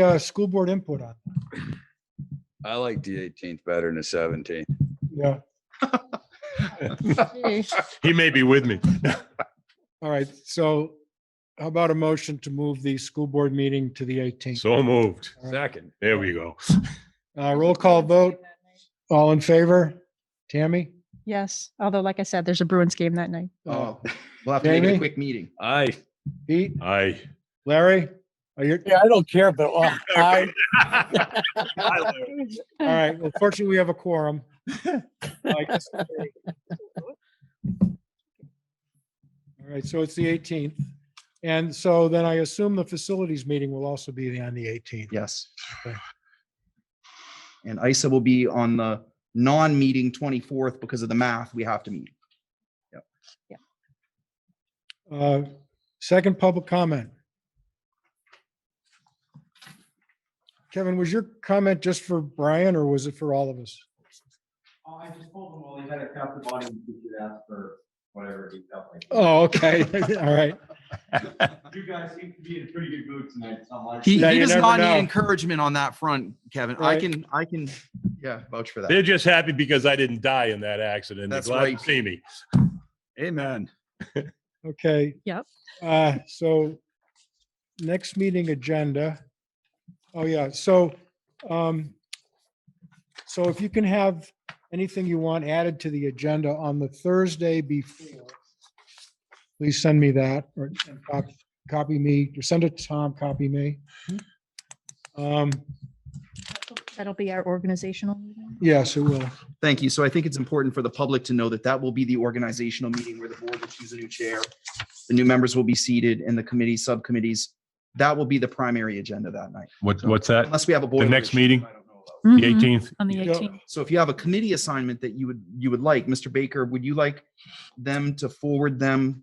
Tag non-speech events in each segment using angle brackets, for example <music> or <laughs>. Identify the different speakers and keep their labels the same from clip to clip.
Speaker 1: uh, school board input on.
Speaker 2: I like the eighteenth better than the seventeenth.
Speaker 1: Yeah.
Speaker 3: He may be with me.
Speaker 1: All right. So how about a motion to move the school board meeting to the 18th?
Speaker 3: So moved.
Speaker 2: Second.
Speaker 3: There we go.
Speaker 1: Uh, roll call vote. All in favor? Tammy?
Speaker 4: Yes, although like I said, there's a Bruins game that night.
Speaker 1: Uh,
Speaker 5: Oh, we'll have to make it
Speaker 1: Jamie?
Speaker 5: a quick meeting.
Speaker 2: Aye.
Speaker 1: Pete?
Speaker 3: I.
Speaker 1: Larry? Are you,
Speaker 6: Yeah, I don't care, but
Speaker 3: <laughs>
Speaker 6: uh, I,
Speaker 1: all right. Well, fortunately, we have a
Speaker 6: <laughs>
Speaker 1: quorum. I guess- All right. So it's the 18th. And so then I assume the facilities meeting will also be on the 18th.
Speaker 5: Yes.
Speaker 1: Okay.
Speaker 5: <sighs> And ISA will be on the non-meeting 24th because of the math we have to meet.
Speaker 1: Uh, Second public comment. Kevin, was your comment just for Brian or was it for all of us?
Speaker 7: Oh, I just told him, well, he had to count the bodies if you ask for whatever he felt like.
Speaker 1: Oh, okay. <laughs> All right.
Speaker 7: You guys seem to be in a pretty good mood tonight, so I'm like.
Speaker 5: He,
Speaker 1: Yeah,
Speaker 5: he
Speaker 1: you
Speaker 5: does
Speaker 1: never
Speaker 5: not
Speaker 1: know.
Speaker 5: need encouragement on that front, Kevin. I
Speaker 1: Right.
Speaker 5: can, I can, yeah, vouch for that.
Speaker 3: They're just happy because I didn't die in that accident. They're
Speaker 5: That's
Speaker 3: glad to
Speaker 5: right.
Speaker 3: see me.
Speaker 5: Amen.
Speaker 1: Okay.
Speaker 4: Yep.
Speaker 1: Uh, so next meeting agenda. Oh, yeah. So, um, so if you can have anything you want added to the agenda on the Thursday before, please send me that or and cop- copy me, or send it to Tom, copy me. Um,
Speaker 4: That'll be our organizational meeting.
Speaker 1: yes, it will.
Speaker 5: Thank you. So I think it's important for the public to know that that will be the organizational meeting where the board will choose a new chair. The new members will be seated and the committee, subcommittees. That will be the primary agenda that night,
Speaker 3: What, what's that?
Speaker 5: unless we have a board.
Speaker 3: next
Speaker 5: issue
Speaker 3: meeting?
Speaker 5: I don't know about.
Speaker 3: The eighteenth?
Speaker 4: Mm-hmm. On the
Speaker 1: Yeah.
Speaker 4: 18th.
Speaker 5: So if you have a committee assignment that you would, you would like, Mr. Baker, would you like them to forward them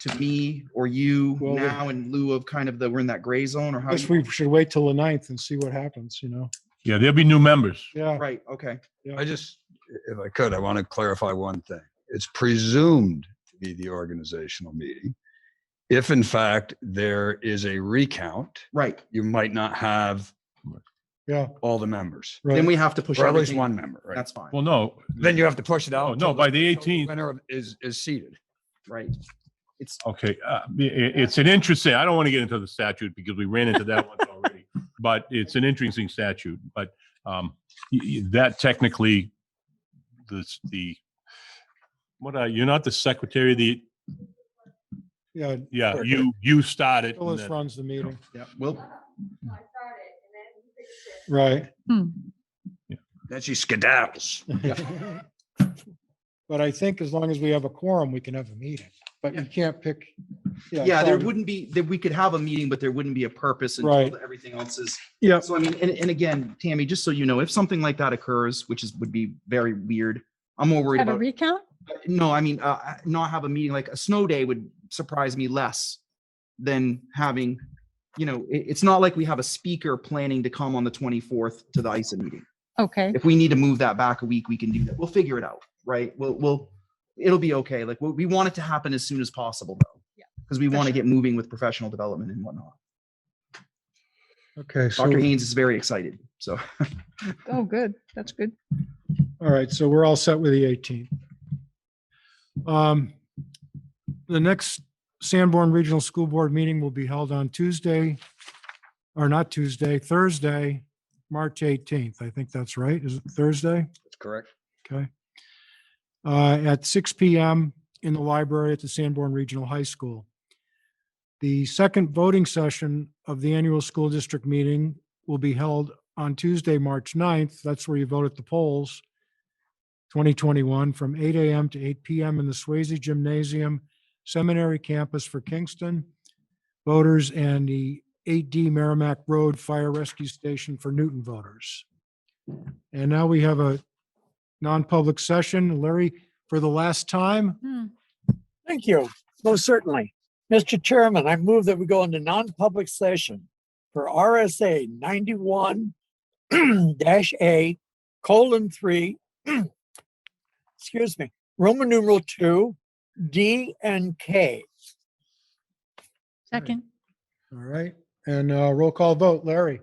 Speaker 5: to me or you
Speaker 1: Well, we-
Speaker 5: now in lieu of kind of the, we're in that gray zone or how?
Speaker 1: I guess
Speaker 5: you-
Speaker 1: we should wait till the ninth and see what happens, you know?
Speaker 3: Yeah, there'll be new members.
Speaker 1: Yeah.
Speaker 5: Right, okay.
Speaker 2: I just, if I could, I want to clarify one thing. It's presumed to be the organizational meeting. If in fact there is a recount,
Speaker 5: Right.
Speaker 2: you might not have
Speaker 1: Yeah.
Speaker 2: all the members,
Speaker 1: Right.
Speaker 5: Then we have to push
Speaker 2: or at least
Speaker 5: everything.
Speaker 2: one member, right?
Speaker 5: That's fine.
Speaker 3: Well, no.
Speaker 2: Then you have to push it
Speaker 3: Oh,
Speaker 2: out.
Speaker 3: no,
Speaker 2: till
Speaker 3: by the
Speaker 2: till
Speaker 3: 18th.
Speaker 2: Winner of- is, is seated.
Speaker 5: Right. It's,
Speaker 3: Okay, uh, i- i- it's an interesting, I don't want to get into the statute because we ran into that once already. But it's an interesting statute, but um, y- y- that technically, this, the, what are, you're not the secretary of the,
Speaker 1: Yeah.
Speaker 3: yeah, you, you started.
Speaker 1: Phyllis runs the meeting.
Speaker 5: yeah, well,
Speaker 1: Right.
Speaker 4: Hmm.
Speaker 2: Then she skedaddles.
Speaker 1: <laughs> But I think as long as we have a quorum, we can have a meeting, but you can't pick.
Speaker 5: yeah, there
Speaker 1: so-
Speaker 5: wouldn't be, that we could have a meeting, but there wouldn't be a purpose
Speaker 1: Right.
Speaker 5: until everything else is.
Speaker 1: Yep.
Speaker 5: So I mean, and, and again, Tammy, just so you know, if something like that occurs, which is, would be very weird, I'm more worried
Speaker 4: Have
Speaker 5: about.
Speaker 4: a recount?
Speaker 5: no, I mean, uh, I- not have a meeting, like a snow day would surprise me less than having, you know, it, it's not like we have a speaker planning to come on the 24th to the ISA meeting.
Speaker 4: Okay,
Speaker 5: If we need to move that back a week, we can do that. We'll figure it out, right? We'll, we'll, it'll be okay. Like, we, we want it to happen as soon as possible though.
Speaker 4: Yeah,
Speaker 5: Because we
Speaker 4: for
Speaker 5: want to
Speaker 4: sure.
Speaker 5: get moving with professional development and whatnot.
Speaker 1: Okay, so,
Speaker 5: Dr. Haynes is very excited, so.
Speaker 4: oh, good, that's good.
Speaker 1: all right, so we're all set with the 18th. Um, The next Sanborn Regional School Board meeting will be held on Tuesday, or not Tuesday, Thursday, March 18th. I think that's right. Is it Thursday?
Speaker 2: That's correct.
Speaker 1: Okay. Uh, At six PM in the library at the Sanborn Regional High School. The second voting session of the annual school district meeting will be held on Tuesday, March 9th. That's where you vote at the polls. 2021 from eight AM to eight PM in the Swayze Gymnasium Seminary Campus for Kingston. Voters and the 8D Merrimack Road Fire Rescue Station for Newton voters. And now we have a non-public session. Larry, for the last time,
Speaker 3: Hmm.
Speaker 6: thank you, most certainly. Mr. Chairman, I move that we go into non-public session for RSA ninety-one <clears throat> dash A colon three, <clears throat> excuse me, Roman numeral two, D and K.
Speaker 4: Second,
Speaker 1: all right? And uh, roll call vote, Larry,